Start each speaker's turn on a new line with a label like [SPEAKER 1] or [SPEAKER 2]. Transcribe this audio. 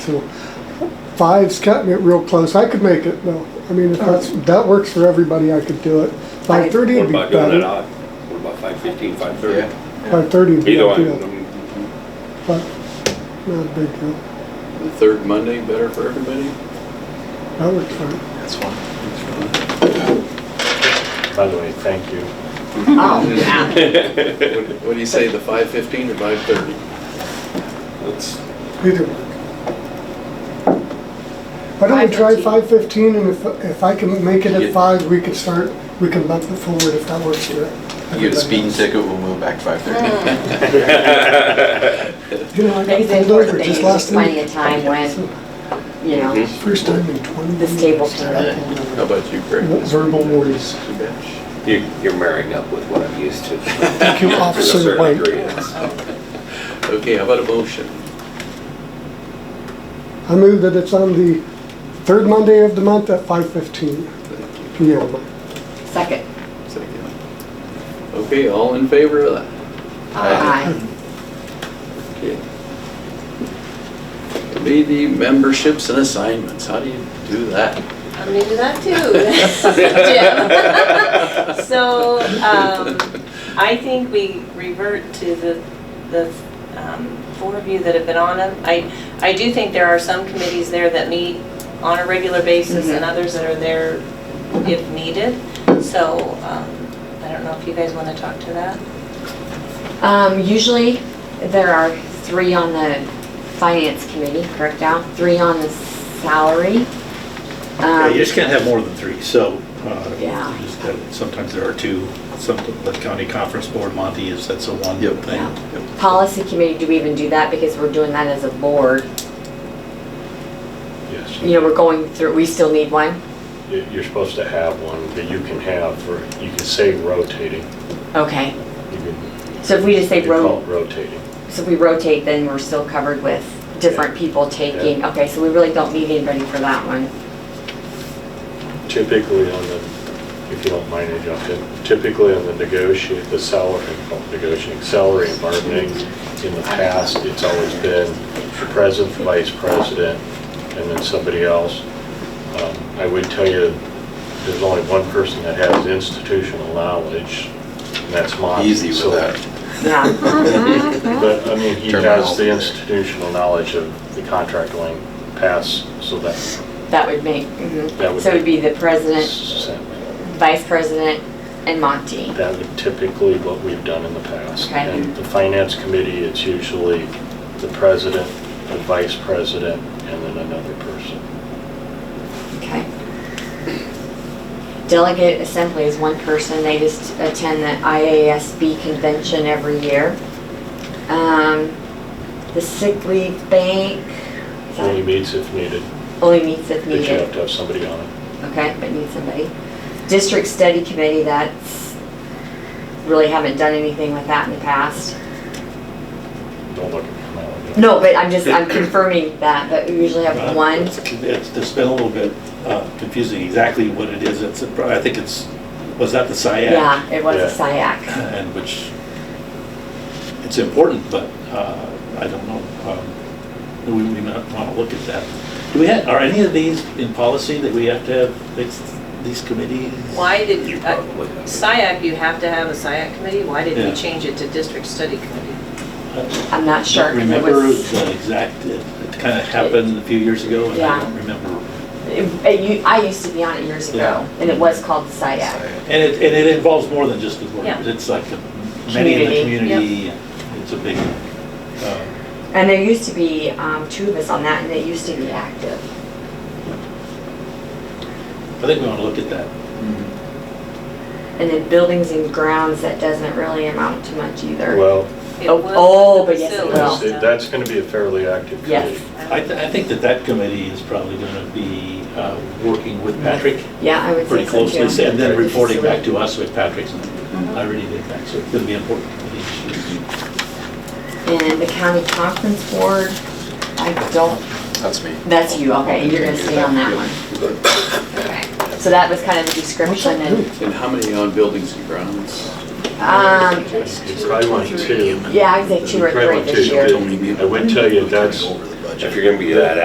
[SPEAKER 1] So five's cutting it real close. I could make it though. I mean, if that's, that works for everybody, I could do it. Five thirty
[SPEAKER 2] What
[SPEAKER 1] would be
[SPEAKER 2] about doing it
[SPEAKER 1] better.
[SPEAKER 2] odd? What about five fifteen, five
[SPEAKER 3] Yeah.
[SPEAKER 2] thirty?
[SPEAKER 1] Five thirty would be
[SPEAKER 2] Either one.
[SPEAKER 1] ideal, but not a big deal.
[SPEAKER 3] The third Monday better for everybody?
[SPEAKER 1] That works fine.
[SPEAKER 3] That's fine.
[SPEAKER 4] By the way, thank you.
[SPEAKER 5] Oh, yeah.
[SPEAKER 3] What what do you say, the five fifteen or five thirty?
[SPEAKER 2] Let's,
[SPEAKER 1] Either one. Why don't we try
[SPEAKER 5] 5:15.
[SPEAKER 1] five fifteen and if, if I can make it
[SPEAKER 3] Yeah.
[SPEAKER 1] at five, we could start, we can bump it forward if that works for everybody.
[SPEAKER 3] You get a speeding ticket, we'll move back five thirty.
[SPEAKER 1] You know, I got
[SPEAKER 5] Things in
[SPEAKER 1] pulled
[SPEAKER 5] for
[SPEAKER 1] over
[SPEAKER 5] things,
[SPEAKER 1] just
[SPEAKER 5] just
[SPEAKER 1] last
[SPEAKER 5] finding
[SPEAKER 1] night.
[SPEAKER 5] a time when, you know,
[SPEAKER 6] Mm-hmm.
[SPEAKER 1] First time in twenty
[SPEAKER 5] This
[SPEAKER 1] years.
[SPEAKER 5] table
[SPEAKER 1] that I pulled over.
[SPEAKER 3] How about you, Greg?
[SPEAKER 1] Verbal worries.
[SPEAKER 3] Too much.
[SPEAKER 2] you, you're marrying up with what I'm used to.
[SPEAKER 1] Thank you,
[SPEAKER 2] To a
[SPEAKER 1] Officer
[SPEAKER 2] certain
[SPEAKER 1] White.
[SPEAKER 2] degree, yes.
[SPEAKER 3] Okay, how about a motion?
[SPEAKER 1] I move that it's on the third Monday of the month at five fifteen
[SPEAKER 3] Thank
[SPEAKER 1] PM.
[SPEAKER 5] second.
[SPEAKER 3] you. Second. Okay, all in favor of that?
[SPEAKER 5] Aye.
[SPEAKER 3] Okay. Committee memberships and assignments, how do you do that?
[SPEAKER 7] I'm gonna do that too. Jim. So, um, I think we revert to the, the, um, four of you that have been on them. I, I do think there are some committees there that meet on a regular basis and
[SPEAKER 5] Mm-hmm.
[SPEAKER 7] others that are there if needed. So, um, I don't know if you guys wanna talk to that?
[SPEAKER 5] Um, usually, there are three on the finance committee, correct, Al? Three on the salary.
[SPEAKER 6] Yeah,
[SPEAKER 5] Um,
[SPEAKER 6] you just can't have more than three, so. uh,
[SPEAKER 5] Yeah.
[SPEAKER 6] just have- Sometimes there are two, some, the county conference board, Monty is, that's the one
[SPEAKER 3] Yep.
[SPEAKER 6] thing.
[SPEAKER 5] Yeah. Policy committee, do we even do that? Because we're doing that as a board.
[SPEAKER 4] Yes.
[SPEAKER 5] You know, we're going through, we still need one?
[SPEAKER 4] You- You're supposed to have one, but you can have, for you can say rotating.
[SPEAKER 5] Okay.
[SPEAKER 4] You can-
[SPEAKER 5] So if we just say
[SPEAKER 4] you can call
[SPEAKER 5] ro-
[SPEAKER 4] it Rotating.
[SPEAKER 5] So if we rotate, then we're still covered with different people taking, okay, so we really don't need anybody for that one.
[SPEAKER 4] Typically on the, if you don't mind interrupting, typically on the negotiate, the salary, oh, negotiating, salary and bargaining, in the past, it's always been the president, vice president, and then somebody else. Um, I would tell you, there's only one person that has institutional knowledge, and that's Monty.
[SPEAKER 3] Easy with
[SPEAKER 4] So-
[SPEAKER 3] that.
[SPEAKER 5] Yeah,
[SPEAKER 4] But, I mean, he has
[SPEAKER 3] Terminology
[SPEAKER 4] the
[SPEAKER 3] there.
[SPEAKER 4] institutional knowledge of the contract lane pass, so that's.
[SPEAKER 5] that would make, mhm.
[SPEAKER 4] That would
[SPEAKER 5] so it'd be the president,
[SPEAKER 4] That
[SPEAKER 5] vice president, and Monty.
[SPEAKER 4] would typically what we've done in the past.
[SPEAKER 5] Okay.
[SPEAKER 4] And the finance committee, it's usually the president, the vice president, and then another person.
[SPEAKER 5] Okay. Delegate assembly is one person, they just attend the IASB convention every year. Um, The sick leave bank is that-
[SPEAKER 4] Only meets if needed,
[SPEAKER 5] only meets if
[SPEAKER 4] but you
[SPEAKER 5] needed.
[SPEAKER 4] have to have somebody on it.
[SPEAKER 5] Okay, but need somebody. District Study Committee, that's, really haven't done anything with that in the past.
[SPEAKER 4] Don't look at Melanie.
[SPEAKER 5] No, but I'm just, I'm confirming that, but we usually have
[SPEAKER 4] Uh-huh.
[SPEAKER 6] Uh,
[SPEAKER 5] one.
[SPEAKER 6] It's it's- it's been a little bit uh, confusing exactly what it is. It's, a- I think it's, was that the SiAC?
[SPEAKER 5] Yeah, it was a SiAC.
[SPEAKER 6] And which, it's important, but uh, I don't know. um, We we might want to look at that. Do we have, are any of these in policy that we have to have these- these committees?
[SPEAKER 7] Why
[SPEAKER 2] You
[SPEAKER 7] did, uh,
[SPEAKER 2] probably have it.
[SPEAKER 7] SiAC, you have to have a SiAC committee, why did
[SPEAKER 6] Yeah.
[SPEAKER 7] we change it to district study committee?
[SPEAKER 6] Uh,
[SPEAKER 5] I'm not sure.
[SPEAKER 6] Don't
[SPEAKER 5] 'cause it
[SPEAKER 6] remember
[SPEAKER 5] was-
[SPEAKER 6] the exact, it kind of happened a few years ago, and
[SPEAKER 5] Yeah.
[SPEAKER 6] I don't remember.
[SPEAKER 5] it- it u- I used to be on it years ago, and it was called the SiAC.
[SPEAKER 6] And it, and it involves more than just the board,
[SPEAKER 7] Yeah.
[SPEAKER 6] it's like the- many in the
[SPEAKER 5] Community,
[SPEAKER 6] community, and it's a big, uh,
[SPEAKER 5] And there used to be um, two of us on that, and it used to be active.
[SPEAKER 6] I think we want to look at that.
[SPEAKER 4] Mm-hmm.
[SPEAKER 5] And then buildings and grounds, that doesn't really amount to much either.
[SPEAKER 4] Well,
[SPEAKER 7] It
[SPEAKER 5] Oh,
[SPEAKER 7] was
[SPEAKER 5] oh,
[SPEAKER 7] the
[SPEAKER 5] but yes, it
[SPEAKER 7] facilities
[SPEAKER 5] will.
[SPEAKER 4] that's-
[SPEAKER 7] stuff.
[SPEAKER 4] that's going to be a fairly active
[SPEAKER 5] Yes.
[SPEAKER 4] committee.
[SPEAKER 6] I, th- I think that that committee is probably going to be uh, working with Patrick
[SPEAKER 5] Yeah, I would say
[SPEAKER 6] pretty
[SPEAKER 5] so too.
[SPEAKER 6] closely, and then
[SPEAKER 5] With the
[SPEAKER 6] reporting back
[SPEAKER 5] facility.
[SPEAKER 6] to us with Patrick's. I really think that's going to be an important committee.
[SPEAKER 5] And the county conference board, I don't,
[SPEAKER 3] That's me.
[SPEAKER 5] that's you, okay, you're gonna stay on that one. Okay. So that was kind of the description and,
[SPEAKER 3] And how many on buildings and grounds?
[SPEAKER 5] um,
[SPEAKER 4] It's probably one, two.
[SPEAKER 5] yeah, I'd say two or
[SPEAKER 4] Probably
[SPEAKER 5] three
[SPEAKER 4] one,
[SPEAKER 5] this
[SPEAKER 4] two.
[SPEAKER 5] year.
[SPEAKER 4] I would tell you that's-
[SPEAKER 2] If you're gonna be that